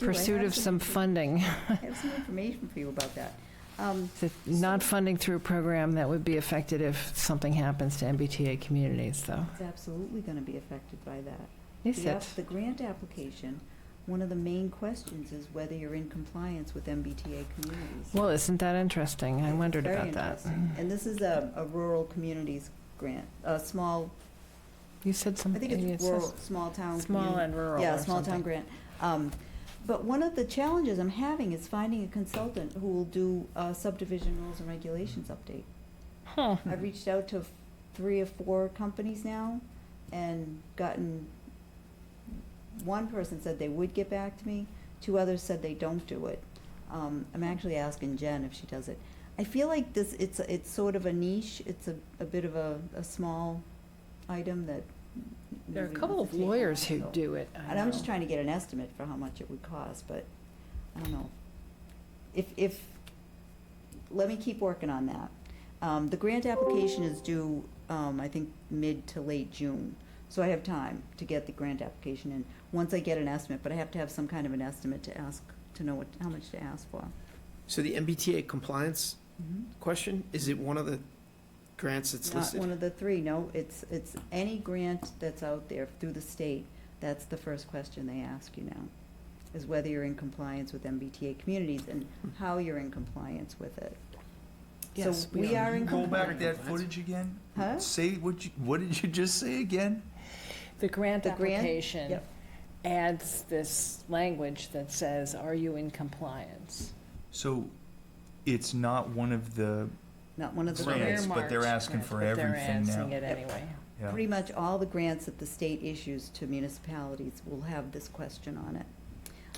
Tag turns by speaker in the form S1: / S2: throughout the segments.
S1: I
S2: pursuit
S1: have
S2: of some funding,
S1: I have some information for you about that. Um,
S2: It's not funding through a program that would be affected if something happens to MBTA communities, though.
S1: It's absolutely going to be affected by that.
S2: Is
S1: The app-
S2: it?
S1: The grant application, one of the main questions is whether you're in compliance with MBTA communities.
S2: Well, isn't that interesting? I
S1: It's
S2: wondered
S1: very
S2: about that. Mm-hmm.
S1: interesting. And this is a, a rural communities grant, a small,
S2: You said
S1: I
S2: something.
S1: think it's rural, small town.
S2: Small
S1: community-
S2: and rural
S1: Yeah,
S2: or
S1: small town
S2: something.
S1: grant. Um, But one of the challenges I'm having is finding a consultant who will do a subdivision rules and regulations update.
S2: Huh.
S1: I've reached out to f- three or four companies now and gotten, one person said they would get back to me, two others said they don't do it. Um, I'm actually asking Jen if she does it. I feel like this, it's, it's sort of a niche, it's a, a bit of a, a small item that.
S2: There are a
S1: nobody
S2: couple
S1: wants
S2: of
S1: to take on,
S2: lawyers who
S1: so-
S2: do it. I
S1: And I'm
S2: know.
S1: just trying to get an estimate for how much it would cost, but I don't know. If, if, let me keep working on that. Um, the grant application is due, um, I think, mid to late June. So I have time to get the grant application in, once I get an estimate, but I have to have some kind of an estimate to ask, to know what, how much to ask for.
S3: So the MBTA compliance
S2: Mm-hmm.
S3: question, is it one of the grants
S1: Not
S3: that's
S1: one
S3: listed?
S1: of the three, no, it's, it's any grant that's out there through the state, that's the first question they ask you now, is whether you're in compliance with MBTA communities and
S3: Hmm.
S1: how you're in compliance with it.
S2: Yes,
S1: So
S2: we
S1: we
S2: are.
S1: are in
S4: Go back to
S1: compliance.
S4: that footage again?
S1: Huh?
S4: Say, what you, what did you just say again?
S2: The grant
S1: The grant?
S2: application
S1: Yep.
S2: adds this language that says, are you in compliance?
S4: So, it's not one of the,
S1: Not one of the
S4: Grant.
S1: grants.
S4: Grants, but they're
S2: Earmarked
S4: asking
S2: grants,
S4: for
S2: but
S4: everything now.
S2: They're asking it anyway.
S4: yeah.
S1: Pretty much all the grants that the state issues to municipalities will have this question on it.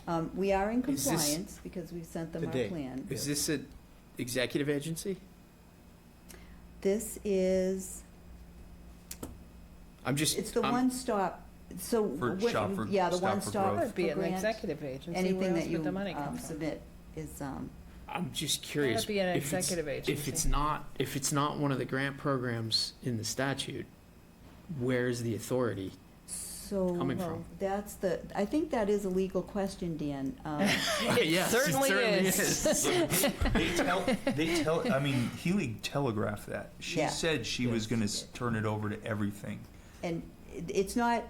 S1: Um, we are in
S3: Is this
S1: compliance because we've sent them our
S3: today?
S1: plan.
S3: Is this an executive agency?
S1: This is
S3: I'm just,
S1: It's the
S3: I'm-
S1: one-stop, so.
S4: um, For
S1: what-
S4: shop for-
S1: Yeah, the
S4: stop for
S1: one-stop.
S4: growth.
S2: That would be
S1: for
S2: an
S1: grant.
S2: executive agency. Where
S1: Anything
S2: else
S1: that
S2: would
S1: you
S2: the money come
S1: um,
S2: from?
S1: submit is, um,
S3: I'm just curious.
S2: That'd be an
S3: if it's-
S2: executive agency.
S3: If it's not, if it's not one of the grant programs in the statute, where is the authority?
S1: so.
S3: Coming from.
S1: That's the, I think that is a legal question, Dan. Um,
S3: Yes, it
S2: certainly is.
S4: They tell, they tell, I mean, Healy telegraphed that. She
S1: Yeah.
S4: said she was gonna s- turn it over to everything.
S1: And it- it's not,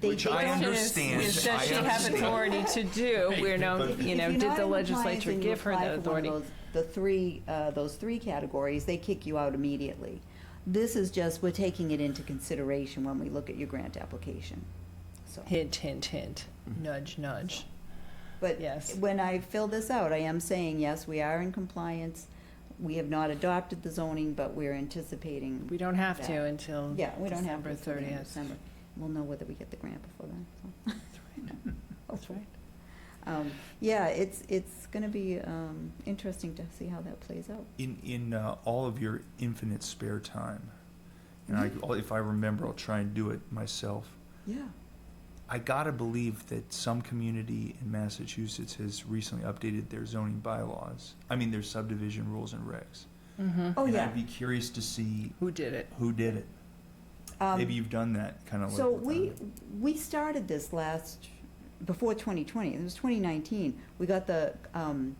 S1: they.
S4: Which
S1: they
S4: I
S1: don't-
S4: under-
S2: Is-
S4: understand.
S2: Is, does
S4: I
S2: she have
S4: understand.
S2: authority to do, you know,
S1: If-
S2: you
S1: if
S2: know,
S1: you're
S2: did
S1: not
S2: the
S1: in compliance
S2: legislature
S1: and you
S2: give her
S1: apply
S2: the
S1: for one of
S2: authority?
S1: those- The three, uh, those three categories, they kick you out immediately. This is just, we're taking it into consideration when we look at your grant application, so.
S2: Hint, hint, hint, nudge, nudge.
S1: But
S2: Yes.
S1: when I fill this out, I am saying, yes, we are in compliance. We have not adopted the zoning, but we're anticipating,
S2: We don't have
S1: Yeah.
S2: to until
S1: yeah, we don't have.
S2: December
S1: this till the end of
S2: 30th.
S1: December. We'll know whether we get the grant before then, so.
S2: That's right.
S1: Um, Yeah, it's, it's going to be um, interesting to see how that plays out.
S4: In, in, uh, all of your infinite spare time, and I, if I remember, I'll try and do it myself.
S1: Mm-hmm. Yeah.
S4: I gotta believe that some community in Massachusetts has recently updated their zoning bylaws. I mean, their subdivision rules and regs.
S2: Mhm.
S1: Oh,
S4: and
S1: yeah.
S4: I'd be curious to see
S2: Who did it?
S4: who did it.
S1: Um,
S4: Maybe you've done that kind of.
S1: So we, we started this last, before 2020, it was 2019, we got the um,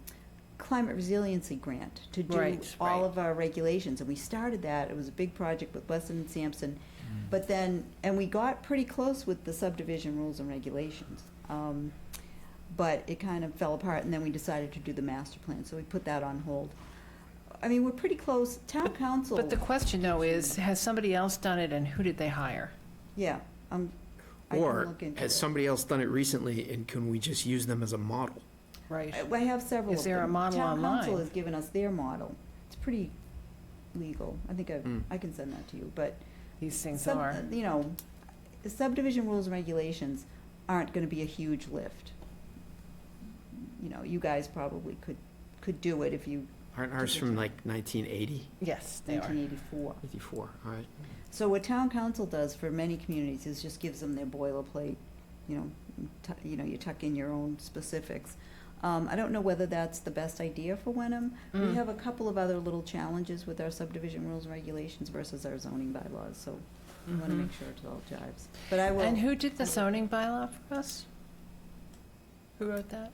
S1: climate resiliency grant to do
S2: Right,
S1: all
S2: right.
S1: of our regulations, and we started that, it was a big project with Weston and Sampson,
S4: um,
S1: but then, and we got pretty close with the subdivision rules and regulations. Um, But it kind of fell apart, and then we decided to do the master plan, so we put that on hold. I mean, we're pretty close, town council,
S2: But the question though is, has somebody else done it and who did they hire?
S1: yeah, um, I can
S3: Or
S1: look into
S3: has
S1: it.
S3: somebody else done it recently and can we just use them as a model?
S2: Right.
S1: I I have several.
S2: Is
S1: of
S2: there a
S1: them.
S2: model
S1: Town council
S2: online?
S1: has given us their model. It's pretty legal. I think I,
S3: Mm.
S1: I can send that to you, but.
S2: These things
S1: sub-
S2: are.
S1: You know, subdivision rules and regulations aren't gonna be a huge lift. You know, you guys probably could, could do it if you,
S3: Aren't ours from like 1980,
S2: Yes, they are.
S1: nineteen eighty-four.
S3: 84, all right?
S1: So what town council does for many communities is just gives them their boilerplate, you know, tu- you know, you tuck in your own specifics. Um, I don't know whether that's the best idea for Wenham. We
S2: Mm.
S1: have a couple of other little challenges with our subdivision rules and regulations versus our zoning bylaws, so we want to
S2: Mhm.
S1: make sure it all jives. But I will.
S2: And who did the zoning bylaw for us? Who wrote that?